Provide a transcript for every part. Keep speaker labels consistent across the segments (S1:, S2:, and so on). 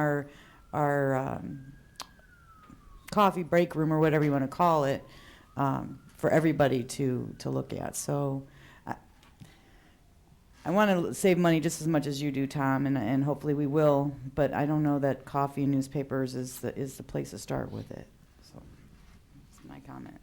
S1: our our um, coffee break room or whatever you want to call it um, for everybody to to look at. So I, I want to save money just as much as you do, Tom, and and hopefully we will. But I don't know that coffee and newspapers is the is the place to start with it. So that's my comment.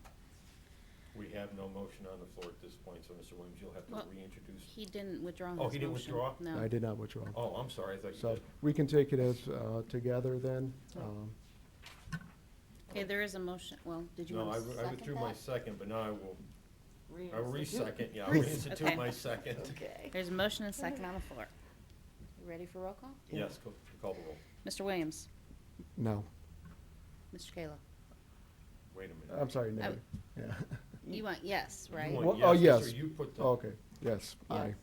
S2: We have no motion on the floor at this point, so Mr. Williams, you'll have
S3: Well-
S2: to reintroduce.
S3: He didn't withdraw his
S2: Oh,
S3: motion.
S2: he didn't withdraw?
S3: No.
S4: I did not withdraw.
S2: Oh, I'm sorry, I thought you
S4: So
S2: did.
S4: we can take it as uh, together then.
S3: Oh.
S4: Um,
S3: Okay, there is a motion, well, did you
S2: No,
S3: want
S2: I
S3: to
S2: re-
S3: second
S2: I withdrew my
S3: that?
S2: second, but now I will, I will re-second, yeah, I'll
S3: Res-
S2: reinstitute
S3: okay.
S2: my second.
S3: There's a motion and a second on the floor. You ready for roll call?
S2: Yes, co- call the roll.
S3: Mr. Williams,
S4: No,
S3: Mr. Kayla,
S2: Wait a
S4: I'm
S2: minute.
S4: sorry, no.
S3: w-
S4: Yeah.
S3: you want yes,
S2: You
S3: right?
S2: want
S4: Uh, Well, oh,
S2: Mr.
S4: yes.
S2: You put the,
S4: Okay, yes,
S3: Yeah.
S4: aye.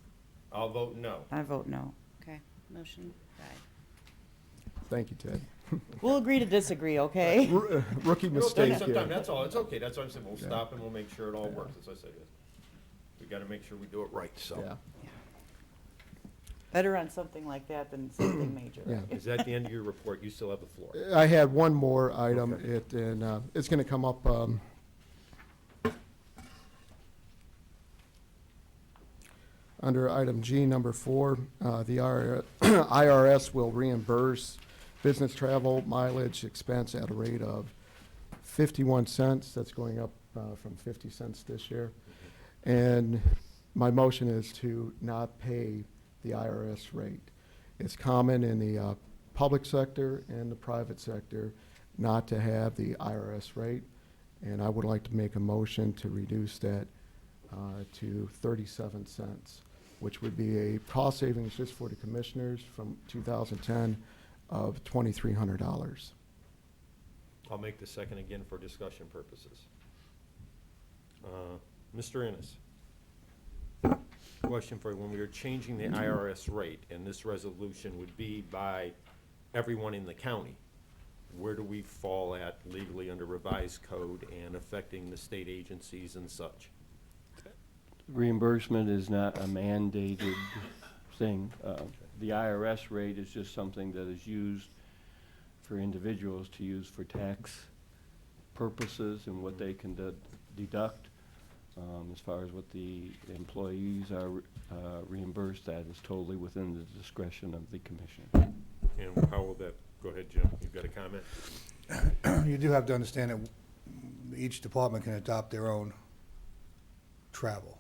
S2: I'll vote no.
S1: I vote no.
S3: Okay, motion died.
S4: Thank you, Ted.
S1: We'll agree to disagree, okay?
S4: R- uh, Rookie
S2: No, take
S4: mistake
S2: some time,
S4: here.
S2: That's all, it's okay, that's what I'm saying, we'll
S4: Yeah.
S2: stop and we'll make sure it all works, as I said. We gotta make sure we do it right,
S4: Yeah,
S2: so.
S1: Better on something like that than something major.
S4: yeah.
S1: right?
S2: Is that the end of your report? You still have the floor.
S4: I had one more item,
S2: Okay.
S4: it, and uh, it's going to come up. um, Under item G, number four, uh, the IR IRS will reimburse business travel mileage expense at a rate of 51 cents. That's going up uh, from 50 cents this year. And my motion is to not pay the IRS rate. It's common in the uh, public sector and the private sector not to have the IRS rate. And I would like to make a motion to reduce that uh, to 37 cents, which would be a cost savings just for the commissioners from 2010 of $2,300.
S2: I'll make the second again for discussion purposes. Uh, Mr. Ennis? Question for you, when we are changing the IRS rate, and this resolution would be by everyone in the county, where do we fall at legally under revised code and affecting the state agencies and such?
S5: reimbursement is not a mandated thing. Uh, The IRS rate is just something that is used for individuals to use for tax purposes and what they can de- deduct. Um, As far as what the employees are re- uh, reimbursed, that is totally within the discretion of the commission.
S2: And how will that, go ahead, Jim, you've got a comment?
S6: you do have to understand that each department can adopt their own travel.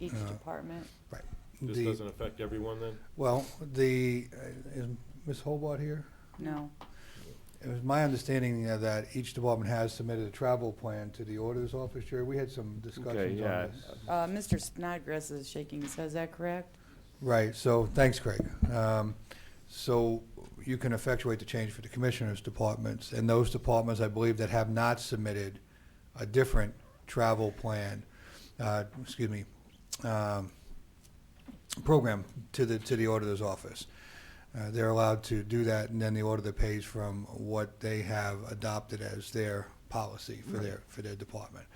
S1: Each
S6: Uh,
S1: department.
S6: Right.
S2: This
S6: The-
S2: doesn't affect everyone then?
S6: Well, the, uh, is Ms. Hobart here?
S1: No.
S6: It was my understanding uh, that each department has submitted a travel plan to the auditor's office, Jerry. We had some discussions
S5: yeah.
S6: on this.
S1: Uh, Mr. Snodgrass is shaking his head. Is that correct?
S6: Right, so, thanks, Craig. Um, So you can effectuate the change for the commissioners' departments, and those departments, I believe, that have not submitted a different travel plan, uh, excuse me, um, program to the, to the auditor's office. Uh, They're allowed to do that, and then the auditor pays from what they have adopted as their policy for their, for their department.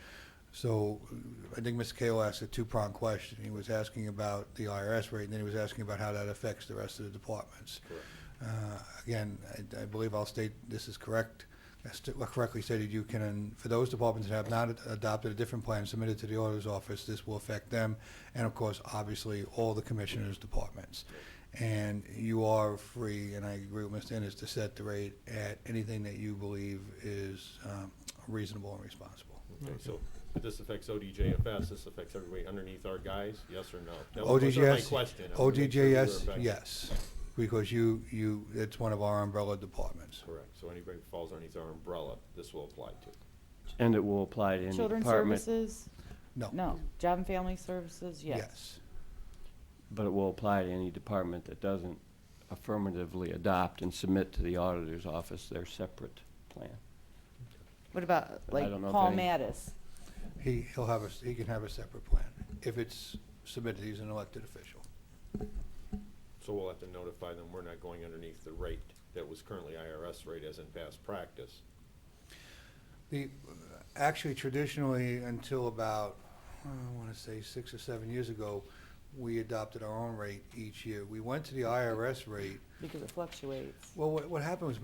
S6: So uh, I think Mr. Kayla asked a two-pronged question. He was asking about the IRS rate, and then he was asking about how that affects the rest of the departments.
S2: Correct.
S6: Uh, Again, I- I believe I'll state this is correct, I st- well, correctly stated, you can, for those departments that have not ad- adopted a different plan submitted to the auditor's office, this will affect them, and of course, obviously, all the commissioners' departments. And you are free, and I agree with Mr. Ennis, to set the rate at anything that you believe is um, reasonable and responsible.
S2: Okay, so but this affects ODJFS, this affects everybody underneath our guys, yes or no? That was- those are my
S6: ODJS,
S2: question. I wanna make sure we were
S6: ODJS,
S2: affected.
S6: yes, because you, you, it's one of our umbrella departments.
S2: Correct, so anybody who falls underneath our umbrella, this will apply to.
S5: And it will apply to any
S1: Children's
S5: department, Oh.
S1: services?
S6: No.
S1: No. Job and family services? Yes.
S5: but it will apply to any department that doesn't affirmatively adopt and submit to the auditor's office their separate plan.
S1: What about
S5: But I
S1: like
S5: don't know if
S1: Paul
S5: any-
S1: Mattis?
S6: He, he'll have a, he can have a separate plan if it's submitted, he's an elected official.
S2: So we'll have to notify them, we're not going underneath the rate that was currently IRS rate as in past practice.
S6: The, uh, actually traditionally, until about, I want to say six or seven years ago, we adopted our own rate each year. We went to the IRS rate.
S1: because it fluctuates.
S6: Well, what, what happened was